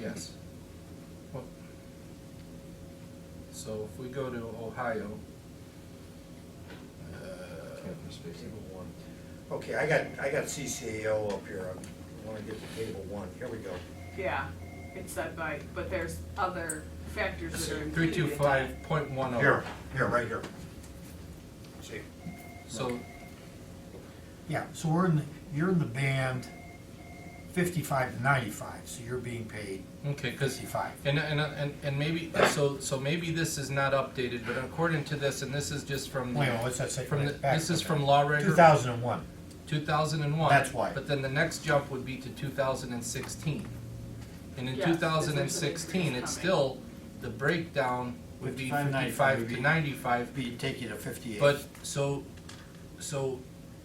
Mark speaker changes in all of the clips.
Speaker 1: Yes. Well, So if we go to Ohio. uh,
Speaker 2: Campus space.
Speaker 1: table one.
Speaker 3: Okay, I got, I got CCAO up here, I wanna get to table one, here we go.
Speaker 4: Yeah, it's said by, but there's other factors that are
Speaker 1: Three
Speaker 4: included.
Speaker 1: two five point one oh.
Speaker 3: Here, here, right here. See,
Speaker 1: So,
Speaker 5: Yeah, so we're in, the you're in the band fifty-five to ninety-five, so you're being paid
Speaker 1: okay, cause,
Speaker 5: fifty-five.
Speaker 1: and, and, and, and maybe, so, so maybe this is not updated, but according to this, and this is just from.
Speaker 5: Wait, a minute, what's that say?
Speaker 1: From, the-
Speaker 5: Back
Speaker 1: this is
Speaker 5: a
Speaker 1: from
Speaker 5: minute.
Speaker 1: Law Reg.
Speaker 5: 2001.
Speaker 1: 2001.
Speaker 5: That's why.
Speaker 1: But then the next jump would be to 2016. And in
Speaker 4: Yes, there's an
Speaker 1: 2016,
Speaker 4: increase
Speaker 1: it's
Speaker 4: coming.
Speaker 1: still, the breakdown would be
Speaker 2: 55,
Speaker 1: 55 to
Speaker 2: maybe.
Speaker 1: 95.
Speaker 2: Be, take you to fifty-eight.
Speaker 1: But, so, so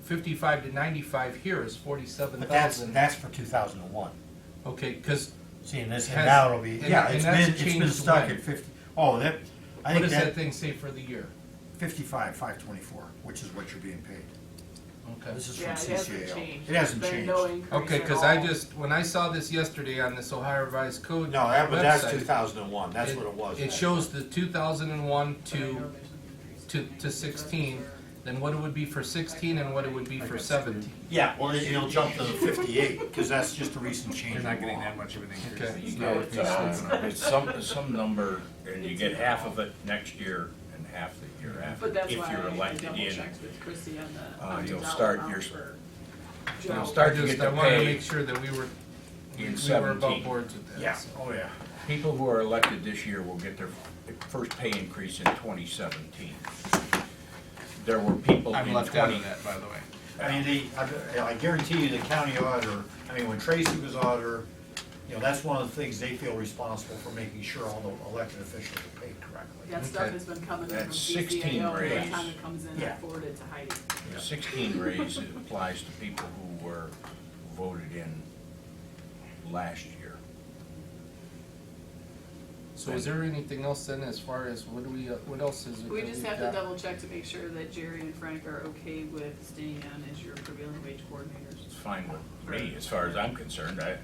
Speaker 1: 55 to 95 here is
Speaker 5: But that's,
Speaker 1: 47,000.
Speaker 5: that's for 2001.
Speaker 1: Okay, because,
Speaker 5: See, and this,
Speaker 1: Has-
Speaker 5: and now it'll be,
Speaker 1: and-
Speaker 5: yeah,
Speaker 1: and
Speaker 5: it's
Speaker 1: that's
Speaker 5: been, it's been
Speaker 1: changed
Speaker 5: stuck
Speaker 1: when?
Speaker 5: at 50, oh, that, I
Speaker 1: what
Speaker 5: think
Speaker 1: does that
Speaker 5: that,
Speaker 1: thing say for the year?
Speaker 5: 55, 524, which is what you're being paid.
Speaker 1: Okay.
Speaker 5: This is from
Speaker 4: Yeah, it hasn't
Speaker 5: CCAO.
Speaker 4: changed.
Speaker 5: It hasn't
Speaker 4: There's been no
Speaker 5: changed.
Speaker 4: increase
Speaker 1: Okay,
Speaker 4: at
Speaker 1: because I
Speaker 4: all.
Speaker 1: just, when I saw this yesterday on this Ohio Revised Code
Speaker 5: No, that, but that's
Speaker 1: website,
Speaker 5: 2001, that's what it was.
Speaker 1: It shows the 2001 to, to, to 16, then what it would be for 16 and what it would be for 17.
Speaker 5: Yeah, well, it'll jump to 58, because that's just a recent change in
Speaker 6: You're not getting
Speaker 5: law.
Speaker 6: that much of an increase.
Speaker 1: Okay.
Speaker 6: It's
Speaker 7: You
Speaker 6: not
Speaker 7: get,
Speaker 6: worth me
Speaker 7: uh,
Speaker 6: sleeping on it.
Speaker 7: It's some, some number, and you get half of it next year and half the year after,
Speaker 4: But that's
Speaker 7: if
Speaker 4: why
Speaker 7: you're
Speaker 4: I had to
Speaker 7: elected
Speaker 4: double
Speaker 7: in.
Speaker 4: check with Chrissy on the.
Speaker 7: Uh,
Speaker 4: on the
Speaker 7: you'll
Speaker 4: dollar
Speaker 7: start
Speaker 4: amount
Speaker 7: your,
Speaker 4: for
Speaker 7: you'll
Speaker 4: Joe.
Speaker 7: start
Speaker 1: I
Speaker 7: to get
Speaker 1: just- I
Speaker 7: the
Speaker 1: wanted to
Speaker 7: pay.
Speaker 1: make sure that we were, we
Speaker 7: in
Speaker 1: were
Speaker 7: 17.
Speaker 1: above boards with that.
Speaker 5: Yeah,
Speaker 1: so.
Speaker 5: oh, yeah.
Speaker 7: People who are elected this year will get their first pay increase in twenty seventeen. There were people in
Speaker 6: I'm
Speaker 7: twenty.
Speaker 6: left out of that, by the way.
Speaker 5: I mean, the, I- I guarantee you, the county auditor, I mean, when Tracy was auditor, you know, that's one of the things they feel responsible for making sure all the elected officials are paid correctly.
Speaker 4: That stuff
Speaker 1: Okay.
Speaker 4: has been coming in from
Speaker 7: That's 16
Speaker 4: CCAO, every
Speaker 7: raise.
Speaker 4: time it comes in, I
Speaker 5: Yeah.
Speaker 4: forward it to Heidi.
Speaker 7: The Sixteen raise applies to people who were voted in last year.
Speaker 1: So is there anything else then as far as what do we, uh, what else is it?
Speaker 4: We
Speaker 1: that
Speaker 4: just
Speaker 1: we've
Speaker 4: have to
Speaker 1: got?
Speaker 4: double check to make sure that Jerry and Frank are okay with staying on as your prevailing wage coordinators.
Speaker 7: It's fine with me, as far as I'm concerned, I,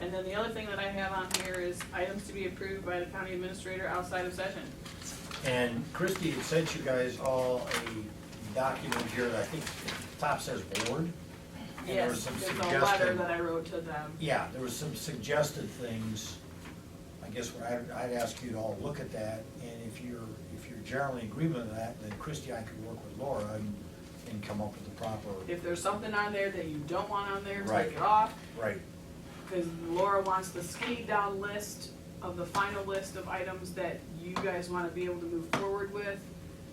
Speaker 4: And then the other thing that I have on here is items to be approved by the county administrator outside of session.
Speaker 3: and Christie had sent you guys all a document here that I think top says board. and there was
Speaker 4: Yes,
Speaker 3: some
Speaker 4: there's a letter
Speaker 3: suggested-
Speaker 4: that I wrote to them.
Speaker 3: Yeah, there was some suggested things, I guess what I'd, I'd ask you to all look at that, and if you're, if you're generally in agreement with that, then Christie, I could work with Laura and, and come up with the proper,
Speaker 4: If there's something on there that you don't want on there,
Speaker 3: Right.
Speaker 4: take it off,
Speaker 3: right,
Speaker 4: because Laura wants the skinny down list of the final list of items that you guys want to be able to move forward with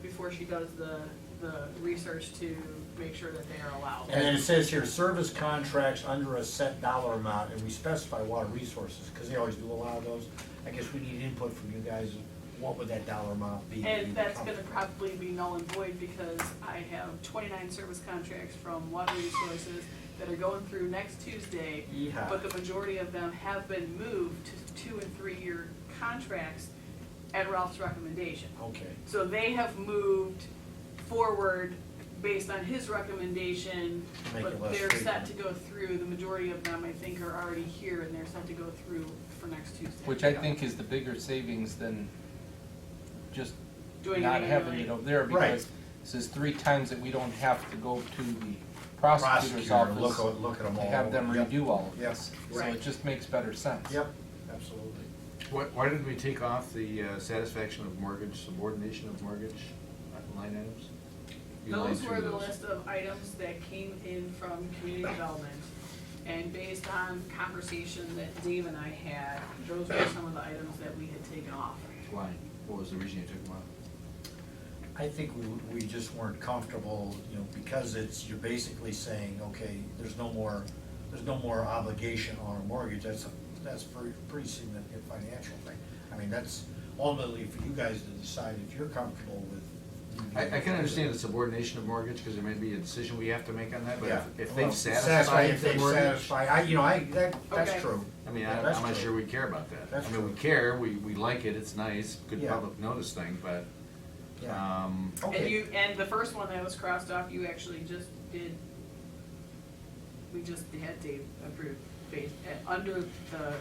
Speaker 4: before she does the, the research to make sure that they are allowed.
Speaker 3: And then it says here, service contracts under a set dollar amount, and we specify water resources, because they always do a lot of those. I guess we need input from you guys, what would that dollar amount be?
Speaker 4: And that's gonna probably be null and void because I have twenty-nine service contracts from water resources that are going through next Tuesday.
Speaker 3: Yeehaw.
Speaker 4: But the majority of them have been moved to two and three-year contracts at Ralph's recommendation.
Speaker 3: Okay,
Speaker 4: So they have moved forward based on his recommendation,
Speaker 3: Make it
Speaker 4: but
Speaker 3: less
Speaker 4: they're
Speaker 3: frequent.
Speaker 4: set to go through, the majority of them, I think, are already here and they're set to go through for next Tuesday.
Speaker 1: Which I think is the bigger savings than just
Speaker 4: Doing it
Speaker 1: not having
Speaker 4: annually.
Speaker 1: it over there
Speaker 3: Right.
Speaker 1: because this is three times that we don't have to go to the prosecutor's
Speaker 3: prosecutor, look,
Speaker 1: office
Speaker 3: at- look at them
Speaker 1: to
Speaker 3: all.
Speaker 1: have them
Speaker 3: Yep.
Speaker 1: redo all of
Speaker 3: Yep.
Speaker 1: this. So
Speaker 4: Right.
Speaker 1: it just makes better sense.
Speaker 3: Yep, absolutely.
Speaker 6: Why, why did we take off the uh, satisfaction of mortgage, subordination of mortgage uh, line items? You lined
Speaker 4: Those
Speaker 6: through
Speaker 4: were the
Speaker 6: those.
Speaker 4: list of items that came in from community development. And based on conversation that Dave and I had, those were some of the items that we had taken off.
Speaker 6: Why? What was the reason you took them off?
Speaker 3: I think we, we just weren't comfortable, you know, because it's, you're basically saying, okay, there's no more, there's no more obligation on a mortgage, that's, a- that's pretty, pretty significant financial thing. I mean, that's ultimately for you guys to decide if you're comfortable with.
Speaker 6: I, I can understand the subordination of mortgage, because there may be a decision we have to make on that, but
Speaker 3: Yeah.
Speaker 6: if- if
Speaker 3: Well,
Speaker 6: they've satisfied
Speaker 3: If they
Speaker 6: the mortgage,
Speaker 3: satisfy, I, you know, I, that,
Speaker 4: Okay.
Speaker 3: that's true.
Speaker 6: I mean,
Speaker 3: Yeah,
Speaker 6: I-
Speaker 3: that's
Speaker 6: I'm not
Speaker 3: true.
Speaker 6: sure we care about that.
Speaker 3: That's
Speaker 6: I mean, we
Speaker 3: true.
Speaker 6: care, we, we like it, it's nice, good
Speaker 3: Yeah.
Speaker 6: public notice thing, but,
Speaker 3: Yeah.
Speaker 6: um,
Speaker 4: And
Speaker 3: Okay,
Speaker 4: you, and the first one that was crossed off, you actually just did, we just had Dave approve, based, uh, under the